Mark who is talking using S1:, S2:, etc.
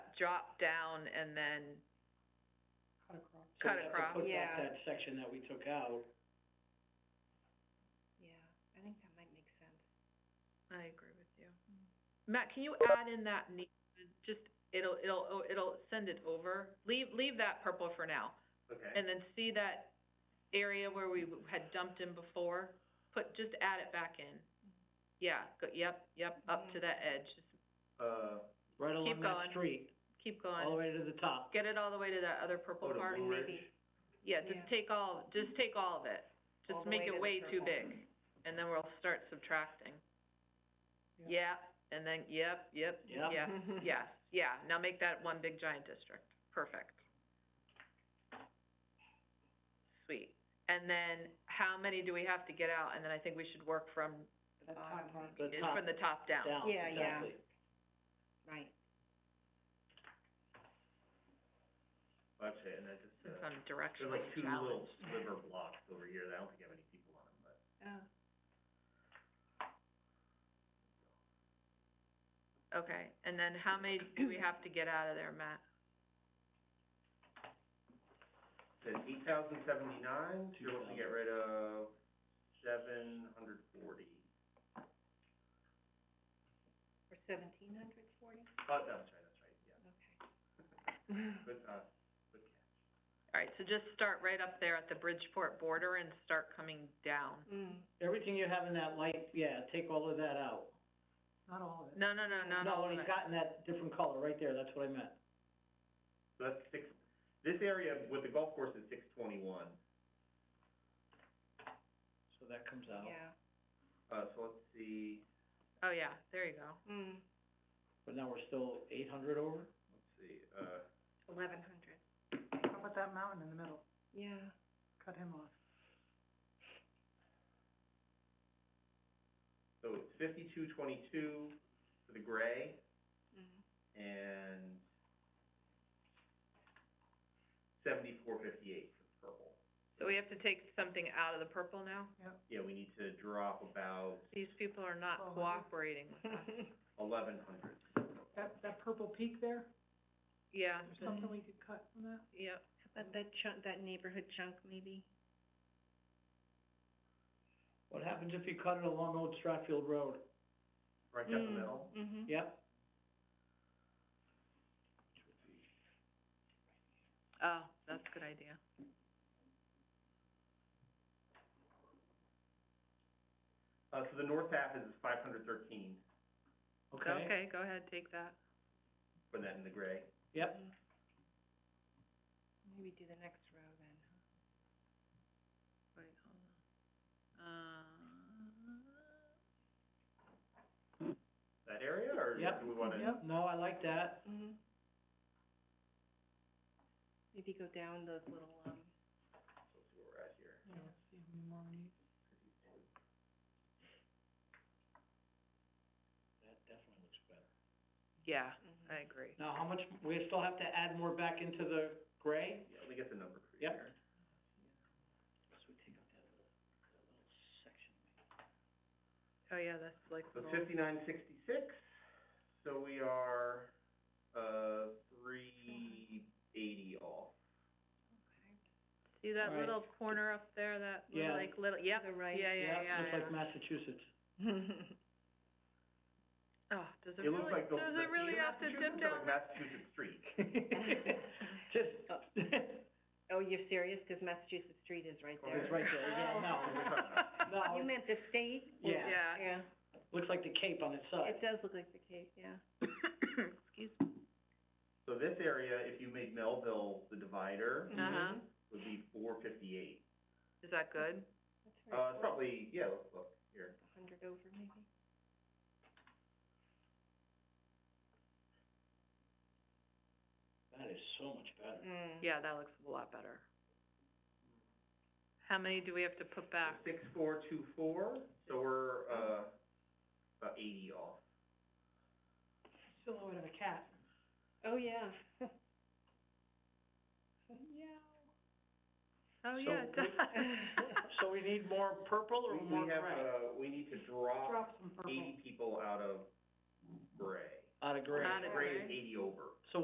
S1: drop down and then,
S2: Cut across.
S1: Cut across.
S2: So we have
S3: Yeah.
S2: to put back that section that we took out,
S3: Yeah, I think that might make sense.
S1: I agree with you. Matt, can you add in that ne- just, it'll, it'll, oh, it'll send it over, leave, leave that purple for now.
S4: Okay.
S1: And then see that area where we w- had dumped in before, put, just add it back in. Yeah, go, yep, yep, up to that edge, just
S4: Uh,
S2: right along
S1: going.
S2: that street,
S1: keep
S2: all the
S1: going,
S2: way to the top.
S1: get it all the way to that other purple
S4: Go to
S1: part.
S4: orange.
S1: Yeah, just
S3: Yeah.
S1: take all, just take all of it,
S3: All
S1: just
S3: the
S1: make
S3: way to
S1: it
S3: the
S1: way too
S3: purple.
S1: big, and then we'll start subtracting.
S2: Yeah.
S1: Yeah, and then, yep, yep,
S2: Yep.
S1: yeah,
S3: Mm-hmm.
S1: yes, yeah, now make that one big giant district, perfect. Sweet, and then how many do we have to get out, and then I think we should work from,
S3: The bottom,
S2: The
S1: is
S2: top,
S1: from the top down.
S2: down,
S3: Yeah, yeah.
S2: exactly.
S3: right.
S4: actually, and that's, just,
S1: Some
S4: uh,
S1: kind of
S4: there's
S1: directional
S4: like two little
S1: challenge.
S4: sliver blocks over here that I don't think have any people on them, but.
S3: Oh.
S1: Okay, and then how many do we have to get out of there, Matt?
S4: Says eight thousand seventy-nine, you're looking to get rid of seven hundred forty.
S3: Or seventeen hundred forty?
S4: Oh, no, that's right, that's right, yeah.
S3: Okay.
S4: Good, uh, good catch.
S1: All right, so just start right up there at the Bridgeport border and start coming down.
S3: Mm,
S2: Everything you have in that light, yeah, take all of that out. Not all of
S1: No, no, no, not
S2: No,
S1: all
S2: when
S1: of
S2: it's
S1: it.
S2: got in that different color right there, that's what I meant.
S4: So that's six, this area with the golf course is six twenty-one,
S2: So that comes out.
S3: yeah,
S4: uh, so let's see,
S1: Oh, yeah, there you go.
S3: mm,
S2: But now we're still eight hundred over?
S4: let's see, uh,
S3: eleven hundred,
S2: How about that mountain in the middle?
S3: yeah.
S2: Cut him off.
S4: so it's fifty-two twenty-two for the gray
S3: Mm.
S4: and seventy-four fifty-eight for the purple.
S1: So we have to take something out of the purple now?
S4: Yeah, we need to drop about
S1: These people are not
S2: Oh,
S1: cooperating with us.
S4: eleven hundred.
S2: That, that purple peak there,
S1: Yeah.
S2: we could cut from that?
S1: Yep.
S3: But that chunk, that neighborhood chunk maybe?
S2: What happens if you cut it along Old Stratfield Road?
S4: Right down the middle?
S3: Mm-hmm.
S2: Yep,
S1: Oh, that's a good idea.
S4: Uh, so the north half is five hundred thirteen,
S2: okay?
S1: Okay, go ahead, take that.
S4: for that in the gray.
S2: Yep,
S3: Maybe do the next row then, huh?
S1: Wait, hold on. Uh,
S4: That area, or
S2: Yep.
S4: do we wanna?
S2: yep, no, I like that.
S3: Mm-hmm. Maybe go down those little, um,
S4: Let's see where we're at here.
S2: That definitely looks better.
S1: yeah,
S3: mhm.
S1: I agree.
S2: Now, how much, we still have to add more back into the gray?
S4: Yeah, let me get the number for you
S2: Yep.
S4: here.
S1: Oh, yeah, that's like
S4: So
S1: little,
S4: fifty-nine sixty-six, so we are, uh, three eighty off.
S1: see that
S2: All right.
S1: little corner up there, that little,
S2: Yeah.
S1: like little, yep,
S3: The
S1: yeah,
S3: right.
S1: yeah, yeah,
S2: Yep, looks like
S1: yeah.
S2: Massachusetts.
S3: Mm-hmm.
S1: Oh, does it
S4: It looks
S1: really,
S4: like
S1: does
S4: those.
S1: it really have to dip down? that-
S4: Massachusetts Street.
S2: Just,
S3: Oh.
S2: it's
S3: Oh, you're serious? Because Massachusetts Street is right
S4: Oh,
S3: there. Oh,
S2: right there, yeah, no,
S3: You
S2: no,
S3: meant the state?
S2: yeah,
S1: Yeah.
S3: Yeah,
S2: looks like the cape on its side.
S3: it does look like the case, yeah.
S1: Excuse me.
S4: So this area, if you made Melville the divider,
S3: Mhm.
S1: Uh-huh,
S4: would be four fifty-eight.
S1: is that good?
S3: That's right.
S4: Uh, it's probably, yeah, let's look here.
S3: A hundred over maybe.
S2: That is so much better.
S3: Mm.
S1: Yeah, that looks a lot better. How many do we have to put back?
S4: Six four two four, so we're, uh, about eighty off.
S2: Silhouette of a cat.
S3: Oh, yeah.
S1: Oh,
S2: So
S1: yeah, it
S2: we-
S1: does.
S2: So we need more purple or
S4: We,
S2: more
S4: we have,
S2: gray?
S4: uh, we need to drop
S2: some
S4: eighty people out of gray.
S2: Out of gray.
S1: Out of
S4: Gray
S1: gray.
S4: is eighty over.
S2: So